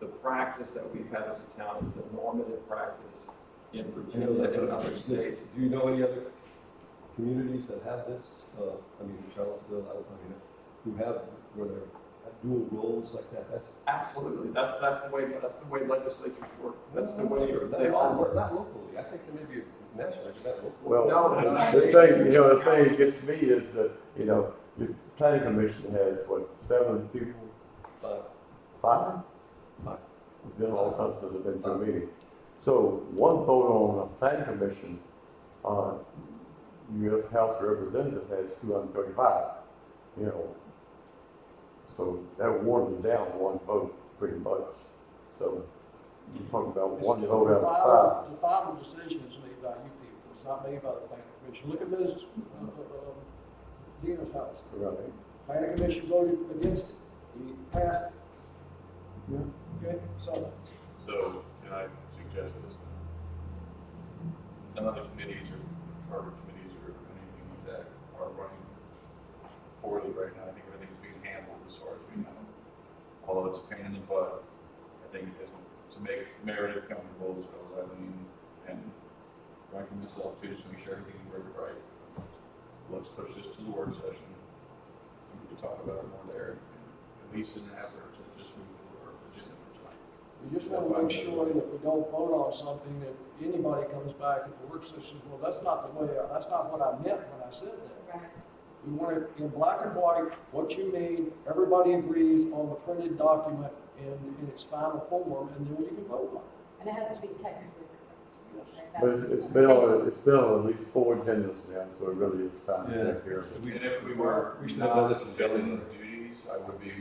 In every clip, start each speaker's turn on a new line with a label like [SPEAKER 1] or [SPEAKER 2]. [SPEAKER 1] the practice that we've had as a town is the normative practice in
[SPEAKER 2] I know
[SPEAKER 1] Virginia
[SPEAKER 2] that,
[SPEAKER 1] and
[SPEAKER 2] but
[SPEAKER 1] other
[SPEAKER 2] this- do
[SPEAKER 1] states.
[SPEAKER 2] you know any other communities that have this? Uh, I mean, Charlottesville, I I mean, who have, where they're have dual roles like that, that's.
[SPEAKER 1] Absolutely, that's, that's the way, that's the way legislatures work, that's the way
[SPEAKER 2] Not-
[SPEAKER 1] they all
[SPEAKER 2] Not
[SPEAKER 1] work.
[SPEAKER 2] not locally, I think there may be nationally, but not locally.
[SPEAKER 3] Well,
[SPEAKER 1] No, no, no.
[SPEAKER 3] the thing, you know, the thing that gets me is that, you know, the planning commission has, what, seven people,
[SPEAKER 2] But
[SPEAKER 3] five? It's been a long time since I've been to a meeting. So one vote on a planning commission, uh, US House of Representatives has two hundred and thirty-five, you know. So that waters down one vote pretty much. So you're talking about one vote
[SPEAKER 4] The
[SPEAKER 3] out of five.
[SPEAKER 4] final, the final decision is made by you people, it's not made by the planning commission. Look at Ms. uh, uh, um, Dina's house,
[SPEAKER 3] Right.
[SPEAKER 4] planning commission voted against it, he passed it.
[SPEAKER 3] Yeah.
[SPEAKER 4] Okay, so,
[SPEAKER 5] So can I suggest this? None of the committees or charter committees or anything like that are running poorly right now. I think everything's being handled as far as we know. Although it's a pain in the butt, I think it is to make Meredith comfortable as well as Eileen and Rankin myself too, so we sure everything worked right. Let's push this to the work session. We can talk about it more there, at least in an effort to just move forward our agenda for tonight.
[SPEAKER 4] we just wanna make sure that we don't vote on something that anybody comes back at the work session, well, that's not the way, I- that's not what I meant when I said that.
[SPEAKER 6] Right.
[SPEAKER 4] We want it in black and white, what you mean, everybody agrees on the printed document in, in its final form, and then you can vote on it.
[SPEAKER 6] And it has to be technically
[SPEAKER 4] Yes.
[SPEAKER 6] correct.
[SPEAKER 3] But it's, it's been on, it's been on at least four agendas now, so it really is time to take care of it.
[SPEAKER 5] And if we were
[SPEAKER 2] We should have done
[SPEAKER 5] not
[SPEAKER 2] this in
[SPEAKER 5] fulfilling
[SPEAKER 2] January.
[SPEAKER 5] duties, I would be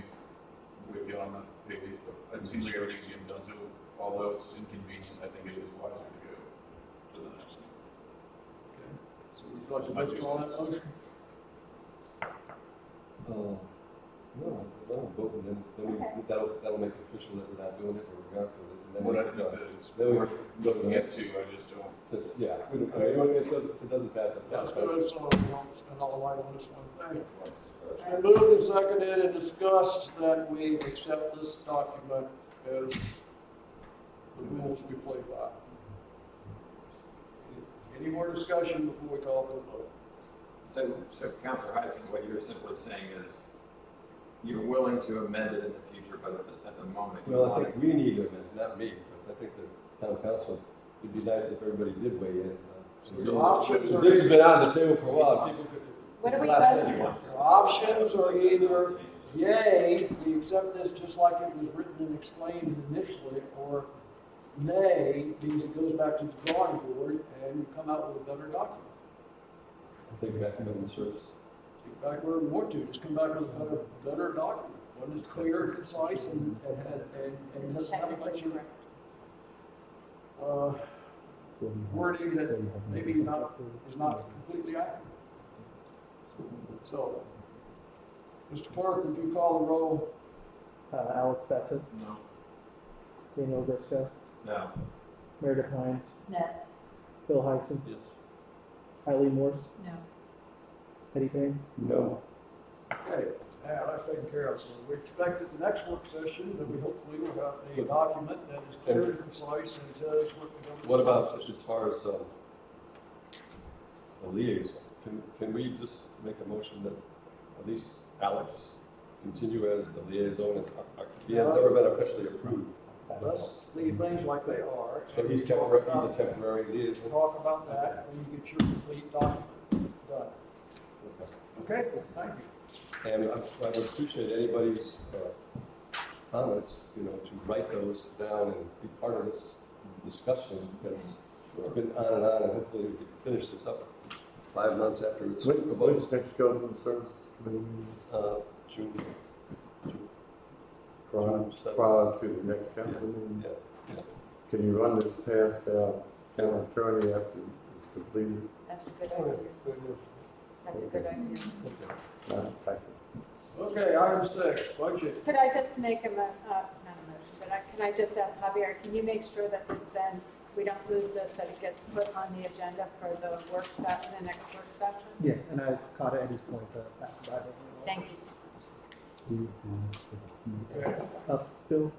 [SPEAKER 5] with you on that page, but it seems like everything's getting done, so although it's inconvenient, I think it is wiser to go to the next. meeting.
[SPEAKER 4] So would you like to withdraw that motion?
[SPEAKER 2] Uh, No, I don't vote, and then, then we,
[SPEAKER 6] Okay.
[SPEAKER 2] that'll, that'll make it official that we're not doing it, or we're not doing it. and then
[SPEAKER 5] What I
[SPEAKER 2] we're
[SPEAKER 5] think
[SPEAKER 2] done.
[SPEAKER 5] that it's
[SPEAKER 2] Then we're
[SPEAKER 5] worth
[SPEAKER 2] looking
[SPEAKER 5] looking
[SPEAKER 2] at,
[SPEAKER 5] at too, I just don't,
[SPEAKER 2] since, yeah, we don't, I mean, it doesn't, it doesn't matter.
[SPEAKER 4] That's good, so we don't spend all the night on this one thing. It's been moved and seconded and discussed that we accept this document as the rules we play by. Any more discussion before we call for the vote?
[SPEAKER 1] So, so Counselor Heising, what you're simply saying is you're willing to amend it in the future, but at the, at the moment you
[SPEAKER 2] Well, I
[SPEAKER 1] want it.
[SPEAKER 2] think we need to amend, not me, but I think the town council, it'd be nice if everybody did weigh in.
[SPEAKER 1] So the
[SPEAKER 2] uh,
[SPEAKER 4] options
[SPEAKER 2] because
[SPEAKER 4] are-
[SPEAKER 2] This has been out on the table for a while, people could.
[SPEAKER 6] What
[SPEAKER 2] it's
[SPEAKER 6] are
[SPEAKER 2] the
[SPEAKER 6] we
[SPEAKER 2] last thing
[SPEAKER 6] voting
[SPEAKER 2] you
[SPEAKER 6] on?
[SPEAKER 2] want.
[SPEAKER 4] Our options are either yay, we accept this just like it was written and explained initially, or nay, means it goes back to the drawing board and you come out with a better document.
[SPEAKER 2] I think back to the service.
[SPEAKER 4] Get back where we want to, just come back with a better, better document, one that's clear, concise, and, and, and, and
[SPEAKER 6] It's
[SPEAKER 4] doesn't have a bunch
[SPEAKER 6] technically
[SPEAKER 4] of,
[SPEAKER 6] correct.
[SPEAKER 4] uh, wording that maybe not, is not completely accurate. So, Mr. Clark, would you call the roll?
[SPEAKER 7] Uh, Alex Bassett,
[SPEAKER 1] No,
[SPEAKER 7] Daniel Briscoe,
[SPEAKER 1] no,
[SPEAKER 7] Meredith Hines,
[SPEAKER 6] No,
[SPEAKER 7] Bill Heisen,
[SPEAKER 2] Yes.
[SPEAKER 7] Eileen Morse,
[SPEAKER 6] no.
[SPEAKER 7] Eddie Payne.
[SPEAKER 3] No.
[SPEAKER 4] Okay, now that's taken care of, so we expect at the next work session that we hopefully will have a document that is clear and concise and tells what we're going to.
[SPEAKER 2] What about as far as, um, the liaison? Can, can we just make a motion that at least Alex continue as the liaison? It's- uh, uh, He has never been officially approved.
[SPEAKER 4] Let's leave things like they are.
[SPEAKER 2] So he's temporary, he's a temporary
[SPEAKER 4] We'll
[SPEAKER 2] liaison.
[SPEAKER 4] talk about that when you get your complete document done.
[SPEAKER 2] Okay.
[SPEAKER 4] Okay, thank you.
[SPEAKER 2] And I I would appreciate anybody's uh, comments, you know, to write those down and be part of this discussion because it's been on and on and hopefully we can finish this up five months after it's
[SPEAKER 3] When, when's
[SPEAKER 2] proposed,
[SPEAKER 3] next government services committee
[SPEAKER 2] uh, June. June-
[SPEAKER 3] prior,
[SPEAKER 2] June seventh.
[SPEAKER 3] prior to the next council meeting?
[SPEAKER 2] Yeah,
[SPEAKER 3] Can you run this past, uh,
[SPEAKER 2] Yeah.
[SPEAKER 3] county attorney after it's completed?
[SPEAKER 6] That's a good idea. That's a good idea.
[SPEAKER 3] Uh, thank you.
[SPEAKER 4] Okay, item six, budget.
[SPEAKER 6] Could I just make a, mo- uh, not a motion, but I, can I just ask Javier, can you make sure that this then, we don't lose this, that it gets put on the agenda for the work session, the next work session?
[SPEAKER 7] Yeah, and I caught Eddie's point to pass by.
[SPEAKER 6] Thank you.
[SPEAKER 4] Okay.
[SPEAKER 7] Uh, Bill